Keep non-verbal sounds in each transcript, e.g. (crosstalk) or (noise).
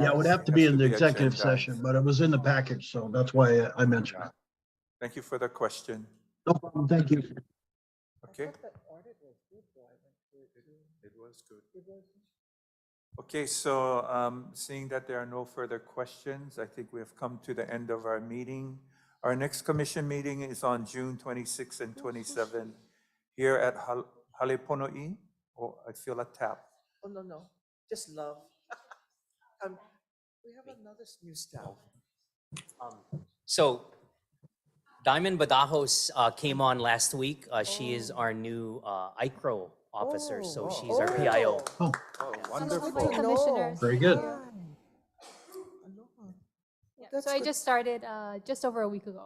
Yeah, it would have to be in the Has to be executive agenda. session, but it was in the package, so that's why I- I mentioned it. Thank you for the question. No problem, thank you. Okay. It was good. Okay, so um, seeing that there are no further questions, I think we have come to the end of our meeting. Our next commission meeting is on June 26 and 27 here at Hal- Halepono'i. Oh, I feel a tap. Oh, no, no, just love. (laughs) Um, We have another s- new staff. So Diamond Badajos uh, came on last week. Uh, She is our new uh, ICRO officer, so Oh, she's our PIO. oh, Oh, Oh, Oh, wonderful. no. Commissioners. very good. Aloha. Yeah, That's So I good. just started uh, just over a week ago.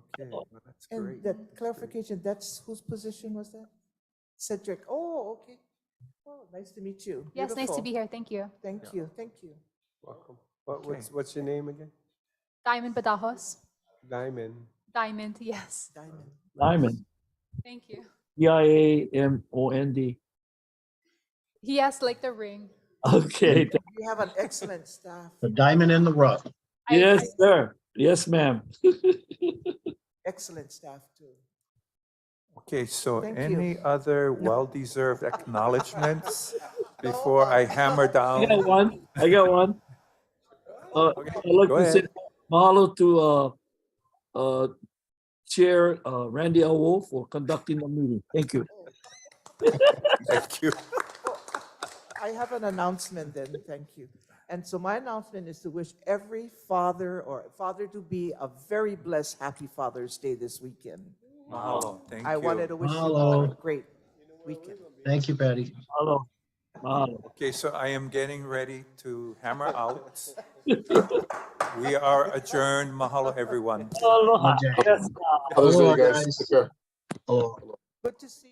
Okay, well, that's And great. that clarification, that's whose position was that? Cedric, oh, okay. Oh, nice to meet you. Yes, nice to Beautiful. be here. Thank you. Thank you, thank you. Welcome. What, what's, Okay. what's your name again? Diamond Badajos. Diamond. Diamond, (laughs) yes. Diamond. Diamond, Thank you. D I A M O N D. He has like the ring. Okay, th- You have an excellent staff, The diamond in the rough. I- I- yes, sir. Yes, ma'am. excellent staff too. Okay, so Thank you. any (laughs) other well-deserved acknowledgements before I hammer I got down? one. I got one. Uh, Oh. Okay, I'd like go to say ahead. mahalo to uh, uh, Chair uh, Randy Awo for conducting the meeting. Thank you. Thank you. I have an announcement then, thank you. And so my announcement is to wish every father or father-to-be a very blessed, happy Father's Day this weekend. Mahalo. Thank you. I wanted to wish you all a Mahalo. great weekend. Thank you, Patty. Mahalo. Mahalo. Okay, so I am getting ready to hammer out. We are adjourned. Mahalo, everyone. Aloha. Okay. Yes, ma'am. Aloha, guys. Aloha. Good to see